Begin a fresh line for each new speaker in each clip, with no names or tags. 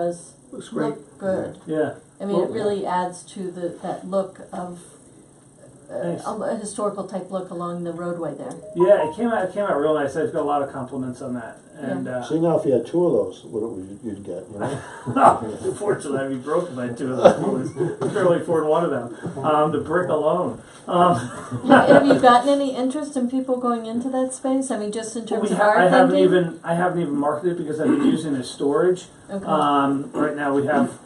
does
Looks great. Oh,
look good.
Yeah,
I mean, it
Well-
really adds to the, that look of, uh,
Nice.
a a historical type look along the roadway there.
yeah, it came out, it came out real nice. I've got a lot of compliments on that. And, uh,
See now, if you had two of those, what would you- you'd get, you know?
Unfortunately, I'd be broken by two of those. bullets. I barely afford one of them. Um, the brick alone. Um,
Have you gotten any interest in people going into that space? I mean, just in
we
terms of
ha- I
our
haven't
thinking?
even I haven't even marketed it because I've been using it as storage.
Okay,
Um, right now we have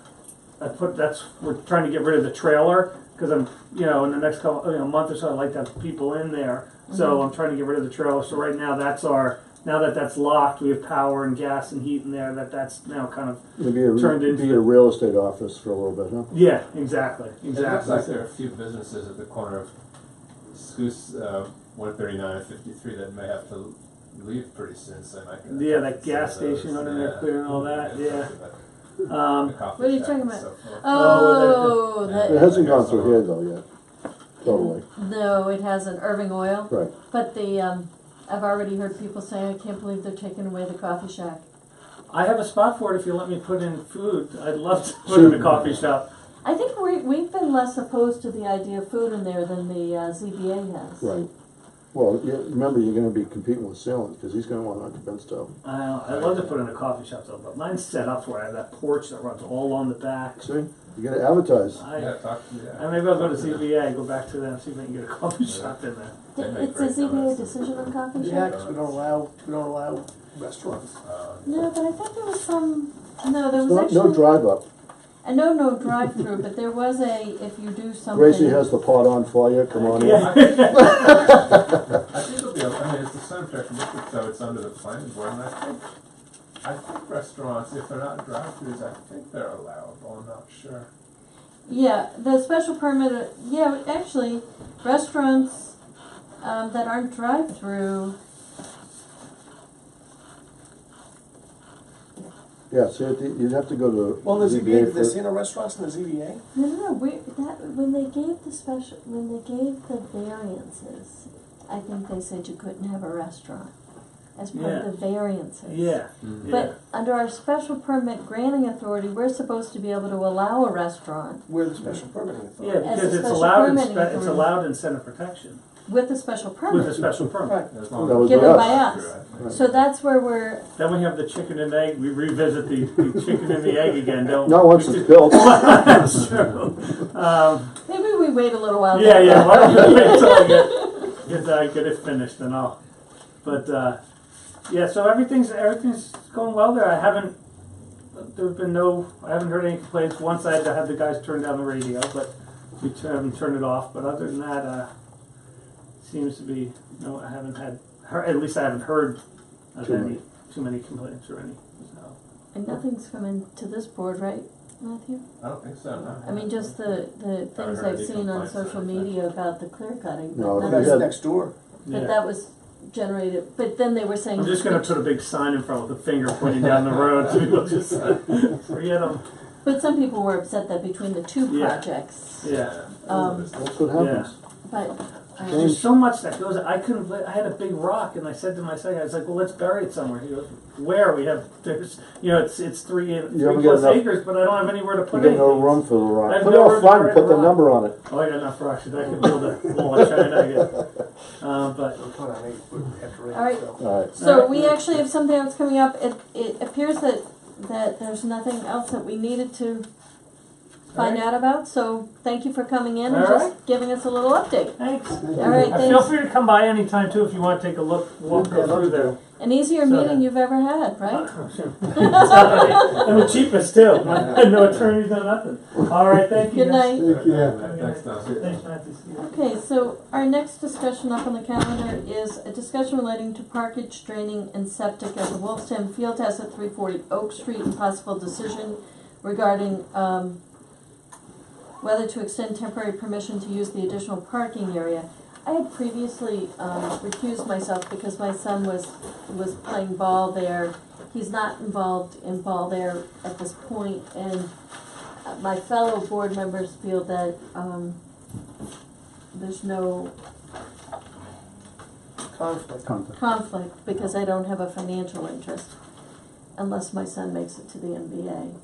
I put that's we're trying to get rid of the trailer because I'm you know in the next couple you know, month or so I'd like to have people in there.
Mm-hmm.
So I'm trying to get rid of the trailer. So right now that's our now that that's locked, we have power and gas and heat in there. That that's now kind of
It'd be a,
Turned
re-
into-
be a real estate office for a little bit, huh?
yeah exactly
It
exactly.
looks like there are a few businesses at the corner of Scoos, uh, one thirty-nine and fifty-three that may have to leave pretty soon, so I might.
Yeah, that gas station under there clearing all that, yeah. Um,
What are you talking about? oh,
Oh,
It
that,
hasn't gone through here though yet, totally,
no, it has an Irving Oil,
right.
but the, um, I've already heard people saying, I can't believe they're taking away the coffee shack.
I have a spot for it if you let me put in food. I'd love to put in a coffee shop.
I think we, we've been less opposed to the idea of food in there than the, uh, ZBA has.
Right. Well, you, remember, you're gonna be competing with Salem, cause he's gonna want occupants too.
Uh, I'd love to put in a coffee shop though, but mine's set up where I have that porch that runs all on the back.
See, you gotta advertise.
I,
Yeah, talk to,
I
yeah.
maybe I'll go to ZBA, go back to them, see if I can get a coffee shop in there.
They
Th-
make
It's
great
a ZBA
donuts.
decision on coffee
Yeah,
shack?
'cause we don't allow, we don't allow restaurants.
Uh,
No, but I thought there was some, no, there was
No,
actually.
no drive up.
I know no drive-through, but there was a, if you do something.
Gracie has the pot on for you, come on in.
Yeah,
I think it'll be, okay. I mean, it's a sun protection district, so it's under the planning board, and I think, I think restaurants, if they're not drive-throughs, I think they're allowable, I'm not sure.
Yeah, the special permit, uh, yeah, actually, restaurants, um, that aren't drive-through,
Yeah, so you'd- you'd have to go to.
Well, the
ZBA
ZBA,
for-
the Sino restaurants and the ZBA,
no, no, no, we, that, when they gave the special, when they gave the variances, I think they said you couldn't have a restaurant as part
Yeah.
of the variances.
yeah, yeah.
But under our special permit granting authority, we're supposed to be able to allow a restaurant
we're the special permitting
Yeah,
authority.
As a
because it's
special
allowed, in
permitting
spe- it's
authority.
allowed in center protection
with a special
with a
permit.
special permit.
Right.
As long
That
as
would
it's
be
not
us.
Given by
drive-through, I think.
So that's where we're,
Then we have the chicken and egg, we revisit the, the chicken and the egg again, don't we?
Not once it's built.
That's true. Um,
maybe we wait a little while.
Yeah, yeah. Why don't you wait until I get get, uh, get it finished and all. But uh, yeah, so everything's everything's going well there. I haven't there have been no I haven't heard any complaints. Once I had to have the guys turn down the radio, but we t- haven't turned it off. But other than that, uh, seems to be no. I haven't had heard, at least I haven't heard of
Too
any
many.
too many complaints or any. So
And nothing's coming to this board, right, Matthew?
I don't think so, no.
I mean, just the, the things
heard
I've
any
seen on
complaints
social
or anything.
media about the clear cutting.
No,
but that
if you
That's
was-
had-
next door.
But
yeah.
that was generated, but then they were saying.
I'm just gonna put a big sign in front with a finger pointing down the road. So people just uh, forget them.
But some people were upset that between the two
Yeah.
projects,
Yeah.
Oh,
Um,
That's what happens.
but, um,
Change.
There's so much that goes. I couldn't. bel- I had a big rock, and I said to my second, I was like, "Well, let's bury it somewhere." He goes, "Where? We have there's you know it's it's three
haven't
three
got
plus
enough-
acres, but I don't have anywhere to
You
put
got
it."
no room for the rock.
I've
Put it
no
all
room to
front,
write
and put
a
the
rock.
number on it.
Oh, I got enough rocks. that I could build a wall of China. I guess. Uh, but
We'll put on eight foot after eight,
All right.
so.
All right.
So we actually have something else coming up. It, it appears that, that there's nothing else that we needed to find out about, so thank you for coming in and
All
just giving us a little update.
thanks.
All right,
Uh, Feel
thanks.
free to come by anytime too if you want to take a look, walk
Yeah, I'd love
through
to.
there.
An easier
So-
meeting you've ever had, right?
Oh, and the cheapest too. no attorneys, no nothing. All right, thank you.
Good
guys.
night.
Thank you.
Thanks, Tom.
Thanks, Matthew. See you.
Okay, so our next discussion up on the calendar is a discussion relating to parkage draining and septic at the Wolfstone Field House at three forty Oak Street and possible decision regarding, um, whether to extend temporary permission to use the additional parking area. I had previously, um, recused myself because my son was, was playing ball there. He's not involved in ball there at this point, and uh, my fellow board members feel that, um, there's no
Conflict.
conflict because I don't have a financial interest unless my son makes it to the NBA.